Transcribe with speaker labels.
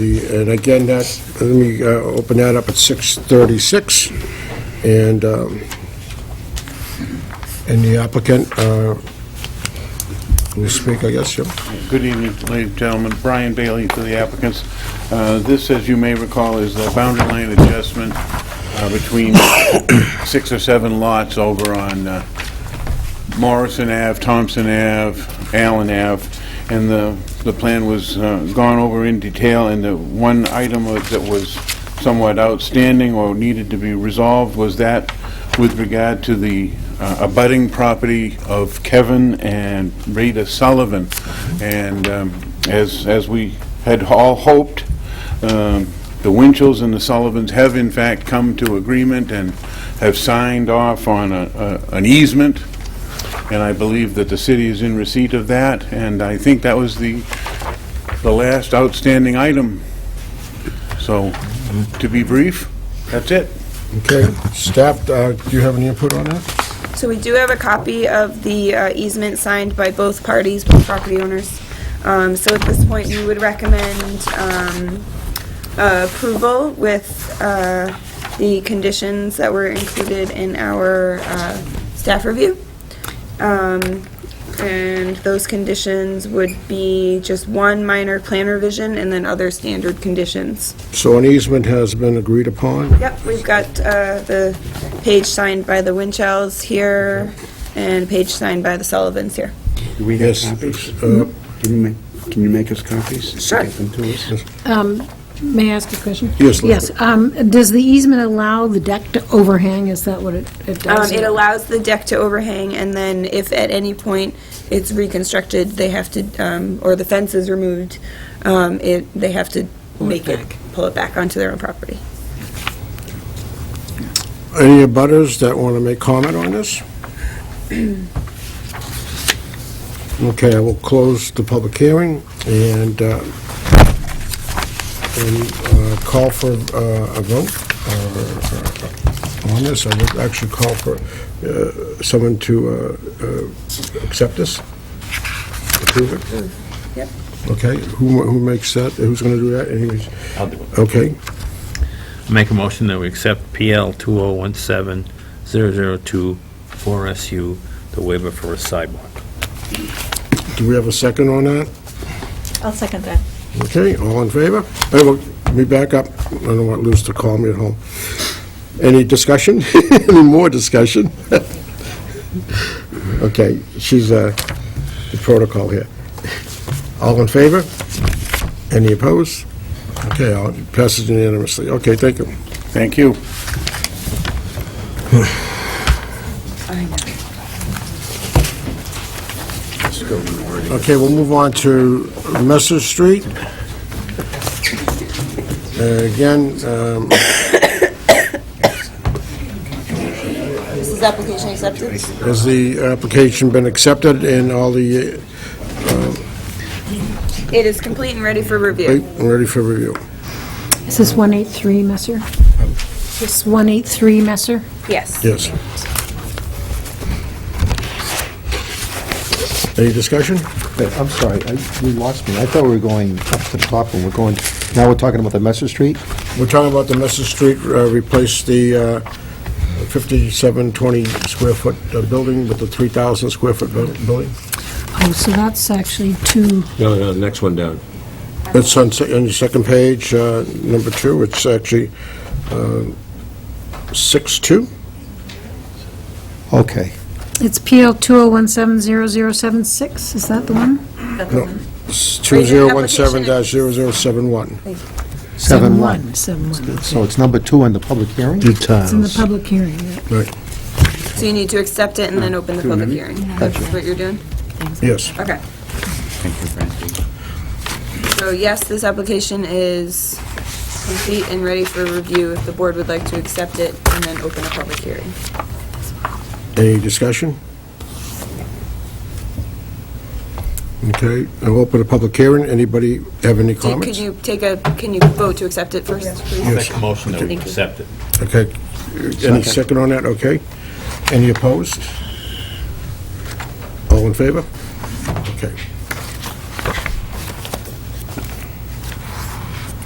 Speaker 1: And again, that, let me uh, open that up at 6:36, and, um, and the applicant, uh, will speak, I guess, yep.
Speaker 2: Good evening, ladies and gentlemen. Brian Bailey to the applicants. Uh, This, as you may recall, is the boundary line adjustment uh, between six or seven lots over on uh, Morrison Ave, Thompson Ave, Allen Ave, and the, the plan was uh, gone over in detail, and the one item was- that was somewhat outstanding or needed to be resolved was that with regard to the uh, abutting property of Kevin and Rita Sullivan. And um, as, as we had all hoped, um, the Winchells and the Sullivans have in fact come to agreement and have signed off on a- a- an easement and I believe that the city is in receipt of that, and I think that was the, the last outstanding item. So, to be brief, that's it.
Speaker 1: Okay, staff, uh, do you have any input on that?
Speaker 3: So we do have a copy of the uh, easement signed by both parties, both property owners. Um, So at this point, we would recommend um, uh, approval with uh, the conditions that were included in our uh, staff review. Um, And those conditions would be just one minor plan revision and then other standard conditions.
Speaker 1: So an easement has been agreed upon?
Speaker 3: Yep, we've got uh, the page signed by the Winchells here and page signed by the Sullivans here.
Speaker 4: Do we have
Speaker 1: Yes.
Speaker 4: copies?
Speaker 1: uh,
Speaker 4: Can you make, can you make us copies?
Speaker 3: Sure.
Speaker 4: Get them to us?
Speaker 5: Um, May I ask a question?
Speaker 1: Yes, Leslie.
Speaker 5: Yes, um, does the easement allow the deck to overhang? Is that what it it
Speaker 3: Um,
Speaker 5: does?
Speaker 3: It allows the deck to overhang, and then if at any point it's reconstructed, they have to, um, or the fence is removed, um, it, they have to make it, pull it back onto their own property.
Speaker 1: Any abutters that want to make comment on this? Okay, I will close the public hearing and, uh, and uh, call for uh, a vote uh, on this. I would actually call for uh, someone to uh, uh, accept this, approve it.
Speaker 3: Yep.
Speaker 1: Okay, who who makes that, who's going to do that anyways?
Speaker 6: I'll do it.
Speaker 1: Okay,
Speaker 6: Make a motion that we accept PL 2017-002-4SU, the waiver for a sidewalk.
Speaker 1: do we have a second on that?
Speaker 7: I'll second that.
Speaker 1: Okay, all in favor? Hey, well, Let me back up. I don't want Liz to call me at home. Any discussion? Any more discussion? Okay, she's uh, the protocol here. All in favor? Any opposed? Okay, all- passes unanimously. Okay, thank you.
Speaker 2: Thank you.
Speaker 1: Okay, we'll move on to Messer Street. Uh, Again, um,
Speaker 3: This is application accepted?
Speaker 1: Has the application been accepted and all the, uh,
Speaker 3: It is complete and ready for
Speaker 1: wait,
Speaker 3: review.
Speaker 1: I'm ready for review?
Speaker 5: Is this 183 Messer? Is this 183 Messer?
Speaker 3: Yes.
Speaker 1: Yes. Any discussion?
Speaker 8: Wait, I'm sorry, I- you lost me. I thought we were going up to the top, and we're going, now we're talking about the Messer Street?
Speaker 1: We're talking about the Messer Street, uh, replace the uh, 5720 square foot uh, building with the 3,000 square foot buil- building.
Speaker 5: Oh, so that's actually two,
Speaker 9: No, no, the next one down.
Speaker 1: It's on se- on your second page, uh, number two, it's actually uh, 6-2.
Speaker 8: Okay.
Speaker 5: it's PL 20170076, is that the one?
Speaker 7: That's the one.
Speaker 1: It's 2017-0071.
Speaker 8: Seven one.
Speaker 5: 71,
Speaker 8: So it's number two in the public hearing? Two
Speaker 5: it's in the public hearing, yeah.
Speaker 1: Right,
Speaker 3: So you need to accept it and then open the public hearing. That's what you're doing?
Speaker 1: yes.
Speaker 3: Okay. Thank you, Francie. So yes, this application is complete and ready for review if the board would like to accept it and then open a public hearing.
Speaker 1: Any discussion? Okay, I'll open a public hearing. Anybody have any
Speaker 3: Do- Could
Speaker 1: comments?
Speaker 3: you take a, can you vote to accept it first, please?
Speaker 6: Make a motion that we accept it.
Speaker 1: Okay, any second on that, okay? Any opposed? All in favor? Okay.